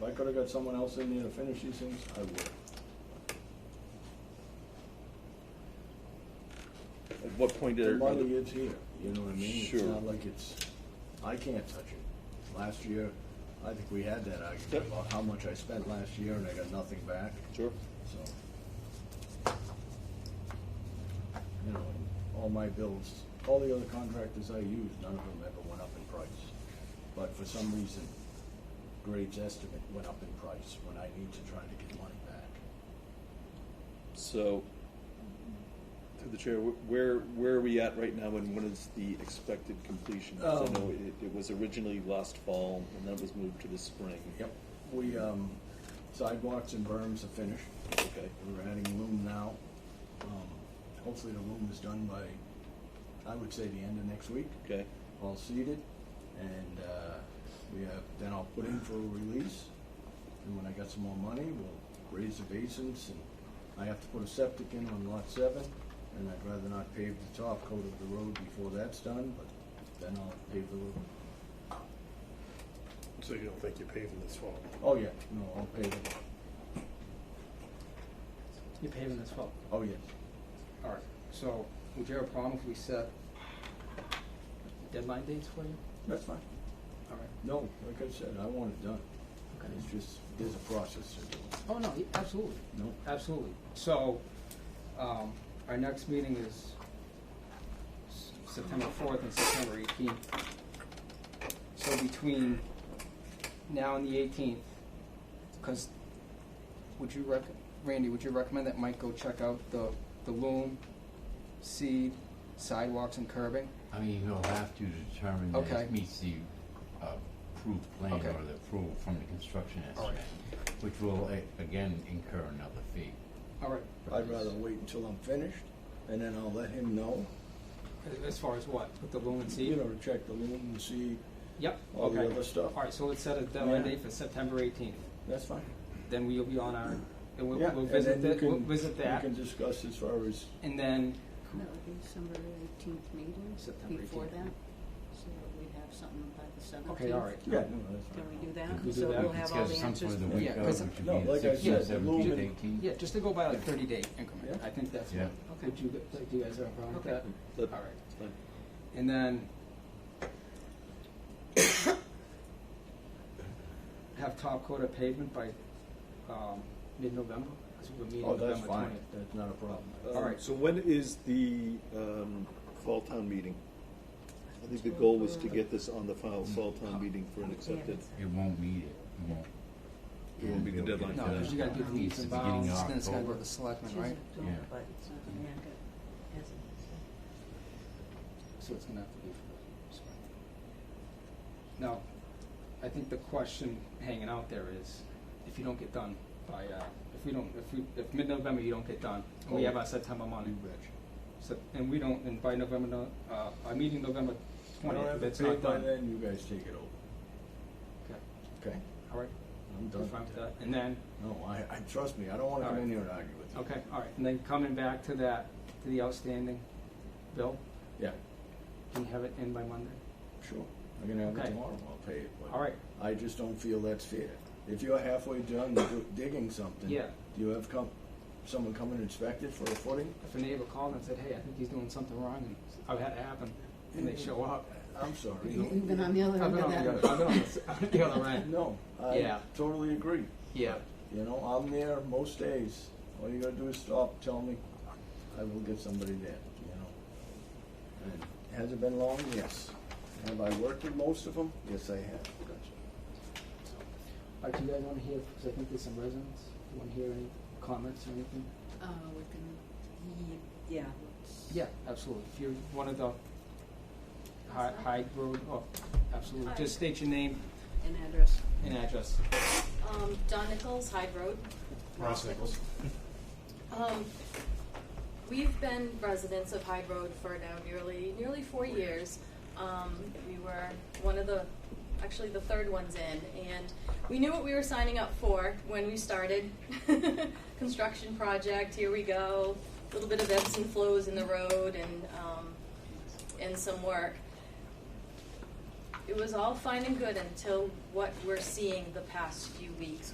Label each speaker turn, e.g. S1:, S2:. S1: could have got someone else in there to finish these things, I would.
S2: At what point
S1: The
S2: did
S1: money
S2: it,
S1: is here, you know what I mean? It's
S2: Sure.
S1: not like it's, I can't touch it. Last year, I think we had that
S2: Yep.
S1: argument about how much I spent last year and I got nothing back,
S2: sure,
S1: so. You know, and all my bills, all the other contractors I used, none of them ever went up in price. But for some reason, Graves' estimate went up in price when I need to try to get money back.
S2: so, through the chair, wh- where, where are we at right now and when is the expected completion? 'Cause I
S1: Um,
S2: know it, it was originally last fall and then it was moved to the spring.
S1: Yep, we, um, sidewalks and berms are finished.
S2: Okay,
S1: We're adding loom now. Um, hopefully the loom is done by, I would say, the end of next week,
S2: okay,
S1: all seeded. And, uh, we have, then I'll put in for a release. And when I got some more money, we'll raise the basins and I have to put a septic in on lot seven. And I'd rather not pave the top coat of the road before that's done, but then I'll pave the road.
S3: So you don't think you're paving this fall?
S1: Oh, yeah, no, I'll pave it.
S4: You're paving this fall.
S1: Oh, yes.
S4: All right, so would you have a problem if we set deadline dates for you?
S1: That's fine.
S4: All right,
S1: No, like I said, I want it done.
S4: okay.
S1: It's just, there's a process to do it.
S4: Oh, no, yeah, absolutely,
S1: No,
S4: absolutely. So, um, our next meeting is S- September fourth and September eighteenth. So between now and the eighteenth, because would you rec, Randy, would you recommend that Mike go check out the, the loom, seed, sidewalks and curbing?
S5: I mean, he'll have to determine that
S4: Okay.
S5: it meets the uh, approved plan or
S4: Okay.
S5: the approval from the construction
S4: All right.
S5: estimate, which will, a- again, incur another fee.
S4: All right,
S5: for
S1: I'd
S5: this.
S1: rather wait until I'm finished, and then I'll let him know,
S4: As- As far as what, with the loom and
S1: you
S4: seed?
S1: know, to check the loom and see
S4: Yep,
S1: all the
S4: okay.
S1: other stuff.
S4: All right, so let's set a deadline
S1: Yeah.
S4: date for September eighteenth.
S1: That's fine.
S4: Then we'll be on our, and we'll,
S1: Yeah,
S4: we'll
S1: and
S4: visit
S1: then you
S4: that, we'll
S1: can-
S4: visit that,
S1: We can discuss as far as,
S4: and then,
S6: That would be December eighteenth meeting,
S4: September
S6: before
S4: 18th.
S6: that, so we'd have something by the seventeenth.
S4: okay, all right.
S1: yeah, no, that's fine.
S6: Can we do
S5: We
S6: that?
S5: could do
S6: So
S4: that.
S5: We
S6: we'll
S5: could
S6: have all the
S5: schedule some
S6: answers.
S5: for the
S1: Yeah,
S5: week of,
S4: 'cause-
S5: which
S1: no,
S5: would be
S1: like I
S5: the
S1: said, the
S5: sixteenth, seventeenth,
S1: lumen-
S5: eighteenth.
S4: Yeah, just to go by like thirty day increment,
S1: Yeah.
S4: I think that's
S5: Yeah.
S4: what,
S6: Okay.
S4: would you, gu- like, do you guys have a problem with
S6: Okay.
S4: that?
S2: That-
S4: All right,
S2: it's fine.
S4: and then have top coat of pavement by, um, mid-November, because we're meeting
S1: Oh,
S4: November
S1: that's
S4: twentieth.
S1: fine, that's not a problem.
S2: Um,
S4: All right.
S2: So when is the um, fall town meeting? I think the goal was to get this on the file, fall town meeting for an accepted.
S5: It won't meet it, it won't.
S2: It won't meet the deadline.
S4: No, because you gotta do the
S5: Needs
S4: meets
S5: to
S4: and
S5: be getting
S4: bounds, then it's gotta go to
S5: October.
S4: the selectmen,
S6: She's
S4: right?
S6: adult,
S5: Yeah.
S6: but it's not gonna make it, has it?
S4: So it's gonna have to be for the spring. Now, I think the question hanging out there is, if you don't get done by, uh, if we don't, if we, if mid-November you don't get done, and
S1: Oh.
S4: we have our September money,
S1: You betcha.
S4: so, and we don't, and by November, no- uh, our meeting November
S1: If I don't
S4: twentieth,
S1: have it
S4: that's not
S1: paid by
S4: done.
S1: then, you guys take it over,
S4: Okay,
S1: okay?
S4: all right,
S1: I'm
S4: you're
S1: done
S4: fine
S1: with
S4: with
S1: that.
S4: that, and then,
S1: No, I, I, trust me, I don't wanna
S4: All
S1: come
S4: right.
S1: in here and argue with you.
S4: okay, all right, and then coming back to that, to the outstanding bill,
S1: Yeah,
S4: can you have it in by Monday?
S1: sure, I'm gonna have it
S4: Okay.
S1: tomorrow, I'll pay it, but.
S4: All right,
S1: I just don't feel that's fair. If you're halfway done do- digging something,
S4: Yeah.
S1: do you have come, someone come and inspect it for a footing?
S4: if a neighbor called and said, hey, I think he's doing something wrong, and I've had it happen, and they show up,
S1: I'm sorry.
S6: You've been on the other
S4: Mm-hmm. I've
S6: end
S4: been
S6: of
S4: on
S6: that.
S4: the other, I've been on the, s- I've been on the rant.
S1: No, I
S4: Yeah.
S1: totally agree.
S4: Yeah.
S1: You know, I'm there most days. All you gotta do is stop, tell me, I will get somebody there, you know. And Has it been long? Yes. Have I worked with most of them? Yes, I have.
S4: All right, do you guys want to hear, because I think there's some residents, you want to hear any comments or anything?
S6: Uh, we can, yeah, let's.
S4: Yeah, absolutely. If you're one of the Hyde, Hyde Road, oh, absolutely. Just state your name
S6: An address.
S4: and address.
S7: Um, Don Nichols, Hyde Road.
S3: Ross Nichols.
S7: Um, we've been residents of Hyde Road for now nearly, nearly four years. Um, we were one of the, actually the third ones in, and we knew what we were signing up for when we started. Construction project, here we go, a little bit of ebbs and flows in the road and, um, and some work. It was all fine and good until what we're seeing the past few weeks,